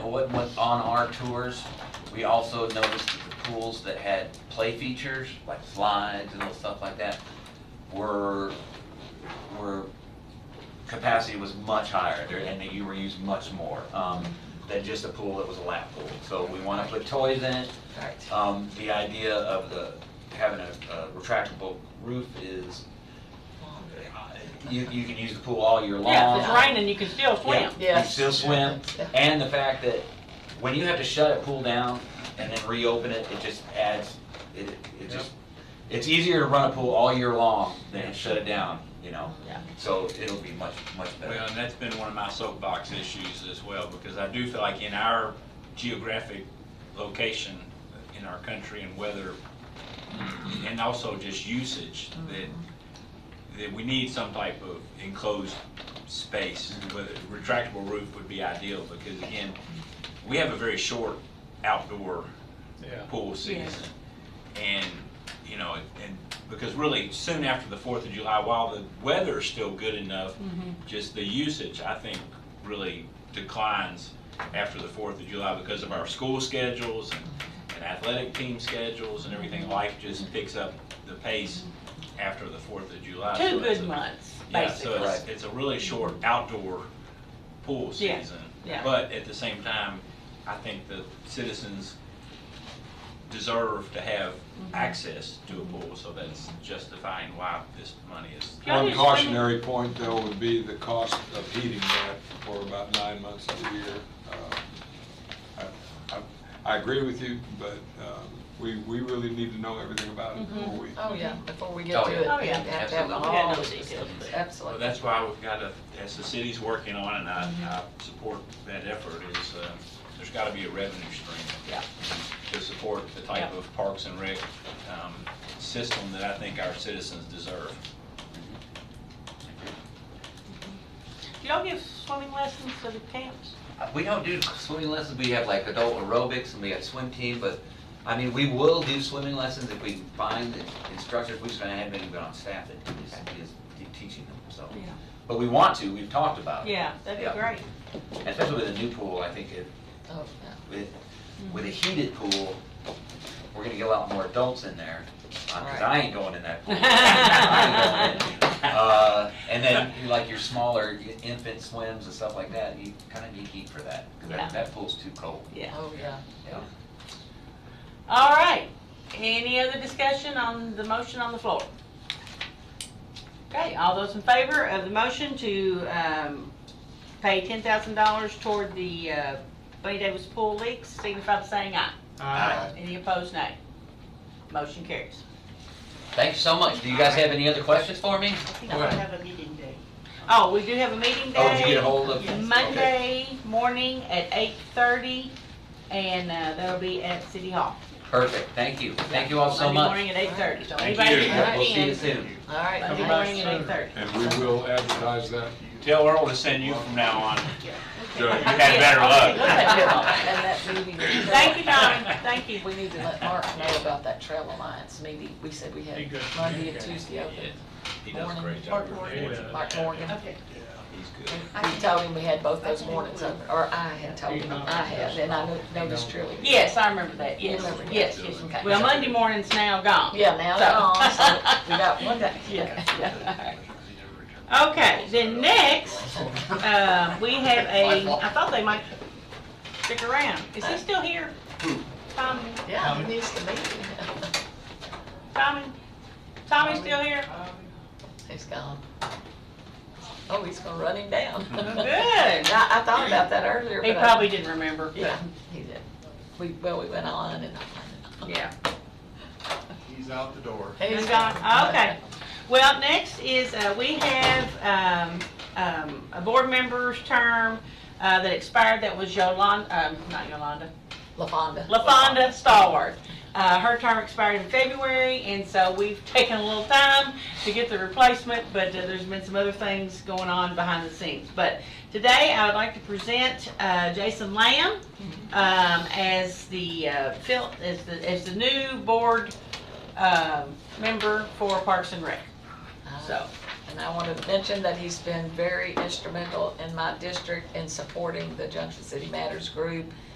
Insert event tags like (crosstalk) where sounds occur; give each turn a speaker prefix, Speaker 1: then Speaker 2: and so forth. Speaker 1: what, what, on our tours, we also noticed that the pools that had play features, like slides and little stuff like that, were, were, capacity was much higher, there- and that you were used much more, um, than just a pool that was a lap pool. So we wanna put toys in it,
Speaker 2: Right.
Speaker 1: um, the idea of the, having a a retractable roof is, uh, you, you can use the pool all year long.
Speaker 3: Yeah, if it's raining, you can still
Speaker 1: Yeah,
Speaker 3: swim.
Speaker 1: You
Speaker 2: Yes.
Speaker 1: still swim,
Speaker 2: Yeah.
Speaker 1: and the fact that when you have to shut a pool down and then reopen it, it just adds, it, it just, it's easier to run a pool all year long than shut it down, you know?
Speaker 3: Yeah.
Speaker 1: So it'll be much, much
Speaker 4: Well,
Speaker 1: better.
Speaker 4: and that's been one of my soapbox issues as well, because I do feel like in our geographic location in our country and weather, and also just usage, that, that we need some type of enclosed space. But a retractable roof would be ideal, because again, we have a very short outdoor pool season. And, you know, and, because really, soon after the Fourth of July, while the weather's still good enough,
Speaker 1: Mm-hmm.
Speaker 4: just the usage, I think, really declines after the Fourth of July because of our school schedules and and athletic team schedules and everything. Life just picks up the pace after the Fourth of July.
Speaker 3: Two
Speaker 4: So it's
Speaker 3: good
Speaker 4: a-
Speaker 3: months,
Speaker 4: Yeah, so
Speaker 3: basically.
Speaker 4: it's, it's a really short outdoor pool
Speaker 3: Yeah,
Speaker 4: season.
Speaker 3: yeah.
Speaker 4: But at the same time, I think the citizens deserve to have
Speaker 3: Mm-hmm.
Speaker 4: access to a pool, so that's justifying why this money is.
Speaker 3: Y'all
Speaker 5: One
Speaker 3: just swing it.
Speaker 5: cautionary point, though, would be the cost of heating that for about nine months of the year. Uh, I- I- I agree with you, but um, we, we really need to know everything about it before we.
Speaker 2: Oh, yeah, before we
Speaker 1: Oh,
Speaker 2: get to
Speaker 1: yeah.
Speaker 2: it.
Speaker 3: Oh, yeah.
Speaker 2: we have to have
Speaker 1: Absolutely.
Speaker 2: all
Speaker 3: Yeah, no
Speaker 2: those
Speaker 3: details,
Speaker 2: systems.
Speaker 3: but-
Speaker 4: Well,
Speaker 2: Absolutely.
Speaker 4: that's why we've got to, as the city's working on, and I, I support that effort, is uh, there's got to be a revenue stream
Speaker 3: Yeah.
Speaker 4: to support the type
Speaker 3: Yeah.
Speaker 4: of Parks and Rec um, system that I think our citizens deserve.
Speaker 3: Do y'all give swimming lessons to the camps?
Speaker 1: Uh, We don't do swimming lessons, we have like adult aerobics and we have swim team, but, I mean, we will do swimming lessons if we find the instructors, we just gonna have anyone on staff that is, is teaching them, so. But we want to, we've talked about it.
Speaker 3: Yeah, that'd be
Speaker 1: Yeah.
Speaker 3: great.
Speaker 1: And Especially with a new pool, I think it,
Speaker 2: Oh,
Speaker 1: with, with a heated pool, we're gonna get a lot more adults in there, uh, cause I ain't going in that
Speaker 3: (laughs)
Speaker 1: pool. I ain't going in. Uh, and then, like your smaller infant swims and stuff like that, you kinda need heat for that, cause
Speaker 3: Yeah.
Speaker 1: that, that pool's too cold,
Speaker 2: yeah,
Speaker 3: Yeah.
Speaker 2: oh, yeah.
Speaker 1: yeah.
Speaker 3: All right. Any other discussion on the motion on the floor? Okay, all those in favor of the motion to um, pay $10,000 toward the uh, Bunny Davis pool leaks, signify by saying aye.
Speaker 2: Aye.
Speaker 3: Any opposed, nay. Motion carries.
Speaker 1: Thanks so much, do you guys have any other questions for me?
Speaker 3: I think we have a meeting day. Oh, we do have a meeting day.
Speaker 1: Oh, did you get a hold of?
Speaker 2: Yes.
Speaker 1: okay.
Speaker 3: Monday morning at 8:30, and uh, that'll be at City Hall.
Speaker 1: Perfect, thank you, thank you all so
Speaker 3: Monday
Speaker 1: much.
Speaker 3: morning at 8:30. So
Speaker 4: Thank
Speaker 3: anybody
Speaker 4: you.
Speaker 3: can
Speaker 1: We'll see you
Speaker 3: attend
Speaker 1: soon.
Speaker 2: All right.
Speaker 3: Monday
Speaker 2: thanks.
Speaker 3: morning at 8:30.
Speaker 5: And we will advertise that.
Speaker 4: Tell Earl to send you from now on. So you
Speaker 3: I
Speaker 4: had
Speaker 3: did.
Speaker 4: better
Speaker 3: I
Speaker 2: Look
Speaker 4: luck.
Speaker 2: at that, and that meeting.
Speaker 3: Thank you, Don, thank you.
Speaker 2: We need to let Mark know about that Trail Alliance meeting. We said we had Monday and Tuesday open.
Speaker 4: He does a great job.
Speaker 2: Mark
Speaker 4: every day.
Speaker 2: Morgan, Mark Morgan.
Speaker 4: He's good.
Speaker 2: We told him we had both those mornings open, or I had told him, I had, and I no- noticed Trilly.
Speaker 3: Yes, I remember that, yes, yes, yes.
Speaker 2: Okay.
Speaker 3: Well, Monday morning's now gone.
Speaker 2: Yeah, now
Speaker 3: So-
Speaker 2: they're on, so we got one day.
Speaker 3: Yeah, yeah. (laughs) Okay, then next, uh, we have a, I thought they might stick around. Is he still here? Tommy,
Speaker 2: Yeah, he needs to meet him.
Speaker 3: Tommy, Tommy's still here?
Speaker 2: He's gone. Oh, he's gonna run him
Speaker 3: (laughs)
Speaker 2: down. (laughs)
Speaker 3: Good.
Speaker 2: I, I thought about that earlier,
Speaker 3: He
Speaker 2: but I-
Speaker 3: probably didn't remember,
Speaker 2: Yeah,
Speaker 3: but,
Speaker 2: he did. We, well, we went on and on and on.
Speaker 3: yeah.
Speaker 6: He's out the door.
Speaker 3: He's gone, Oh, okay. Well, next is, uh, we have, um, um, a board member's term, uh, that expired, that was Yolanda, um, not Yolanda,
Speaker 2: LaFonda.
Speaker 3: LaFonda Stallworth. Uh, her term expired in February, and so we've taken a little time to get the replacement, but uh, there's been some other things going on behind the scenes. But today, I would like to present uh, Jason Lamb um, as the, uh, fill- as the, as the new board um, member for Parks and Rec.
Speaker 2: Ah,
Speaker 3: So,
Speaker 2: And I want to mention that he's been very instrumental in my district in supporting the Junction City Matters group